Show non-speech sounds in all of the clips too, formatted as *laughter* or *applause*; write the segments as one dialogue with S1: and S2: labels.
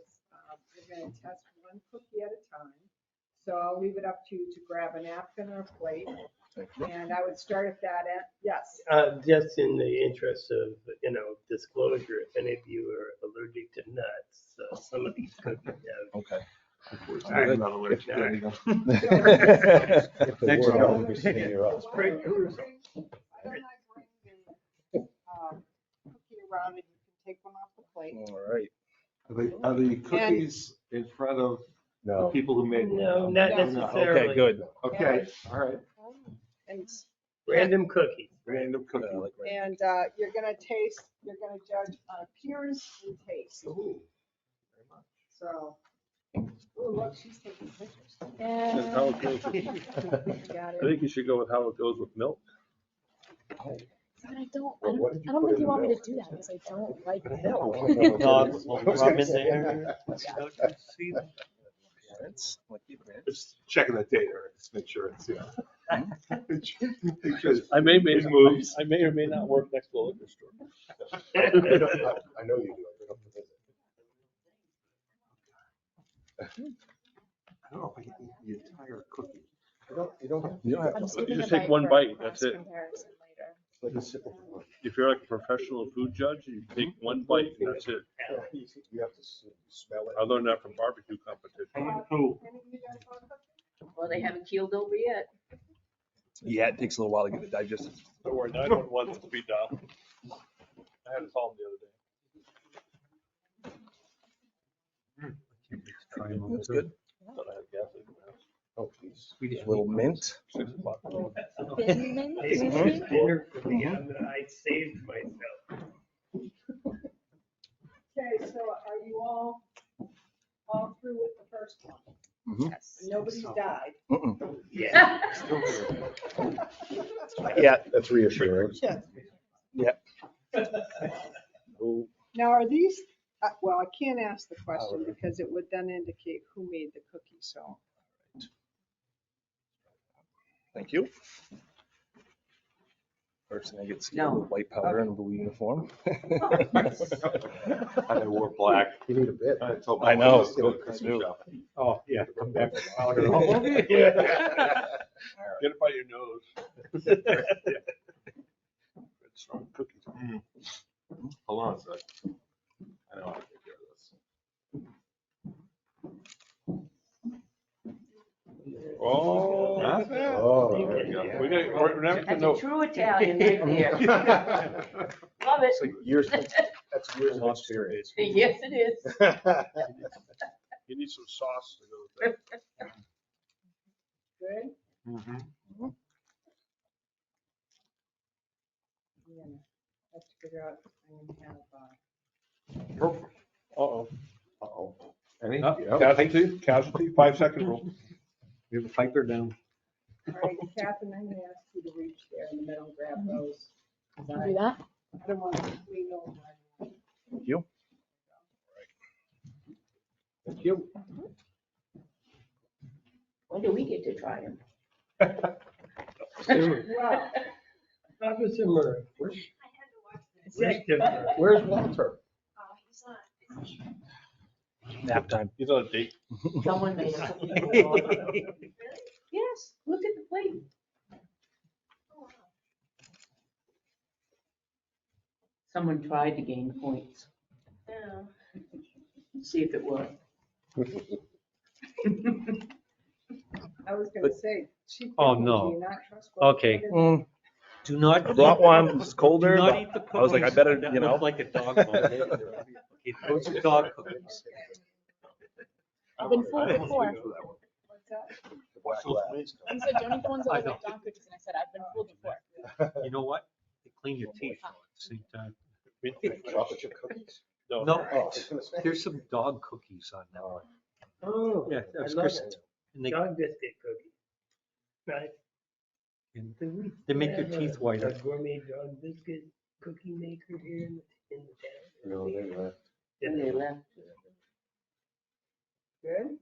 S1: We're Um, gonna test one cookie at a time. So I'll leave it up to you to grab a napkin or a plate. And I would start at that end. Yes,
S2: Uh, just in the interest of, you know, disclosure, if any of you are allergic to nuts, uh, some of these cookies have.
S3: Okay.
S2: I'm
S4: not allergic
S2: to
S5: *laughs*
S2: any
S3: *laughs* If they
S4: Thanks,
S3: were, I
S4: Rob.
S3: would just clean you up.
S1: Why
S2: pretty
S1: don't I
S2: cool.
S1: bring- Why don't I bring the um, cookie around and you can take one off the plate?
S3: All right.
S4: Are the, are the cookies in front of the
S3: No.
S4: people who made them?
S2: No, not
S1: No.
S3: Okay,
S2: necessarily.
S3: good.
S4: Okay, all right.
S1: And,
S2: Random cookies.
S4: Random
S3: Yeah, I
S4: cookie.
S3: uh, like random.
S1: and uh, you're gonna taste, you're gonna judge on appearance and taste. So, oh, look, she's taking pictures. Got it.
S4: think you should go with how it goes with milk.
S6: But I don't, I
S3: Well,
S6: don't,
S3: what did
S6: I
S3: you
S6: don't
S3: put
S6: think
S3: in
S6: you want me
S3: the
S6: to do that because I
S3: *laughs*
S6: don't like *laughs* milk.
S3: milk?
S4: No,
S3: I was
S4: well,
S3: gonna
S4: Rob is
S3: say-
S4: there.
S3: Parents, lucky parents.
S4: Just checking the data, just make sure it's, *laughs* yeah.
S7: I may, may,
S4: It moves.
S7: I may or may not work next to *laughs* a liquor store.
S3: I know I know you do. I bring up the visit.
S4: I don't know if I can eat the entire cookie.
S3: You don't, you don't have. You don't
S6: I'm just
S7: You
S6: looking
S7: just
S6: at
S7: take
S6: my
S7: one
S6: for a
S7: bite,
S6: cross
S7: that's it.
S6: comparison later.
S3: Like a sip of wine.
S7: If you're like a professional food judge, you take one bite and that's it.
S3: You have to s- smell it.
S7: I learned that from barbecue
S4: I
S7: competition.
S4: need to
S1: Any of you guys want cookies?
S8: Well, they haven't keeled over
S6: *laughs*
S8: yet.
S3: Yeah, it takes a little while to get it digested.
S7: Don't worry, nine one one's speed dial. I had a call the other day.
S3: It was good.
S7: Thought I had gas in my house.
S3: Oh, geez. Little mint.
S7: Six o'clock.
S6: Finland,
S2: It's
S6: you
S2: just
S6: think?
S2: dinner for me. I'm- I saved myself.
S1: Okay, so are you all, all through with the first one?
S8: Yes.
S1: Nobody's died.
S3: Mm-mm.
S2: Yeah.
S3: Yeah, that's reassuring.
S1: Yes.
S3: Oh,
S1: Now, are these, uh, well, I can't ask the question because it would then indicate who made the cookie, so.
S3: Thank you. First thing I get scared with white powder and a blue *laughs* uniform.
S4: I wore black.
S3: You need a bit.
S4: I told
S3: I
S4: my
S3: know.
S4: wife to go to Christmas
S3: I knew.
S4: shopping.
S7: Oh, yeah.
S3: Come back.
S7: Get it by your nose.
S4: *laughs* It's Strong cookies. Mm. Hold on a sec. I know how to take care of this.
S7: Oh.
S4: Not bad.
S3: Oh,
S4: There we go.
S7: We got, we're never gonna
S8: That's a
S7: know.
S8: true Italian right there.
S3: *laughs*
S8: Love
S6: *laughs*
S8: it.
S3: so years, that's years of experience. *laughs*
S8: Yes, it is.
S7: You need some sauce to go with that.
S1: Good?
S4: Mhm.
S1: Mm-hmm. Yeah. I have to figure out, I'm gonna have, uh,
S7: Uh-oh.
S3: Uh-oh. Oh.
S4: Any?
S7: Uh, Casualty, casualty, five second rule.
S4: You have a fighter down.
S1: all right, Catherine, I'm gonna ask you to reach there in the middle and grab those. 'cause
S6: Can Do
S1: I
S6: that?
S1: I don't want to clean over.
S3: Thank you.
S4: Thank you.
S8: When do we get to try them?
S1: Well,
S2: Officer Murray,
S9: I had to watch this.
S2: Detective Murray.
S3: Where's Walter?
S9: Oh, he's not.
S3: Nap time.
S7: He's on a date.
S8: Someone made us. a meatball. Yes, look at the plate.
S9: Oh, wow.
S8: Someone tried to gain points,
S9: No.
S8: Oh. see if it worked.
S1: I was gonna say, she.
S5: Oh,
S1: cookies,
S5: no.
S1: you're not trustworthy.
S5: Okay.
S1: What is-
S3: Mm,
S5: Do not.
S3: I brought one, it was
S5: Do
S3: colder,
S5: not
S3: but
S5: eat the cookies.
S3: I was like, I better,
S5: That
S3: you know.
S5: looked Like a dog bone.
S3: *laughs*
S5: Okay, Those are dog cookies.
S6: I've been fooled
S4: I almost
S6: before.
S4: went for that one.
S1: What's that?
S3: The black labs.
S6: You said, don't eat the ones that
S5: I
S6: look like
S5: know.
S6: dog cookies. And I said, I've been fooled before.
S5: You know what? They clean your uh, teeth all at the same time.
S3: Chocolate chip cookies?
S5: No,
S3: Oh, I was gonna say.
S5: there's some dog cookies on that one.
S2: Oh,
S5: Yeah,
S2: I
S5: that's
S2: love
S5: Chris.
S2: it.
S5: And they,
S2: Dog biscuit cookie. Nice.
S5: and they make your
S2: Have a-
S5: teeth
S2: A
S5: whiter.
S2: gourmet dog biscuit cookie maker here in, in the town.
S3: No, uh, they left.
S2: Yeah.
S8: And they left.
S1: Good?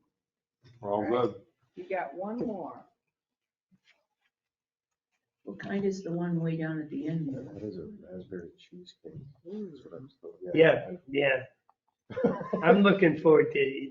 S4: We're all good.
S1: You got one more.
S8: What kind is the one way down at the end? though?
S3: That is a raspberry cheesecake. That's what I was-
S2: Yeah, yeah. I'm looking forward to